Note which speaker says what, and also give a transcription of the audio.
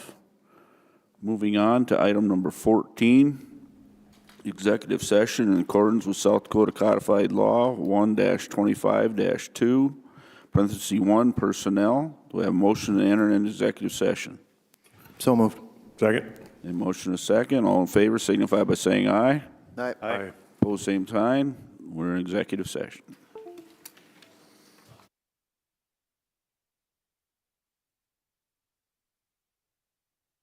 Speaker 1: Moving on to item number 14, executive session in accordance with South Dakota Codified Law 1-25-2, parentheses 1, personnel. Do we have a motion to enter into executive session?
Speaker 2: So moved.
Speaker 3: Second?
Speaker 1: A motion and a second. All in favor signify by saying aye.
Speaker 2: Aye.
Speaker 3: Aye.
Speaker 1: Pose same time. We're in executive session.